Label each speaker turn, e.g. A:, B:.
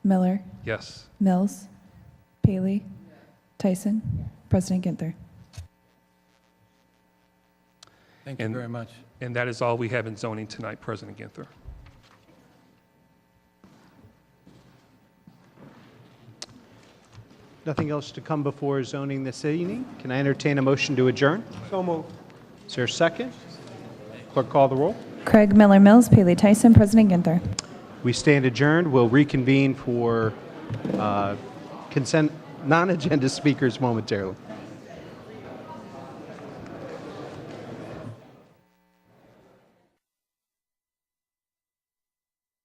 A: Miller,
B: Yes.
A: Mills, Paley, Tyson, President Ginther.
C: Thank you
B: And-
C: very much.
B: And that is all we have in zoning tonight, President Ginther.
D: Nothing else to come before zoning this evening. Can I entertain a motion to adjourn? So moved. Is there a second? Clerk, call the roll.
A: Craig Miller, Mills, Paley, Tyson, President Ginther.
D: We stand adjourned. We'll reconvene for uh, consent, non-agenda speakers momentarily.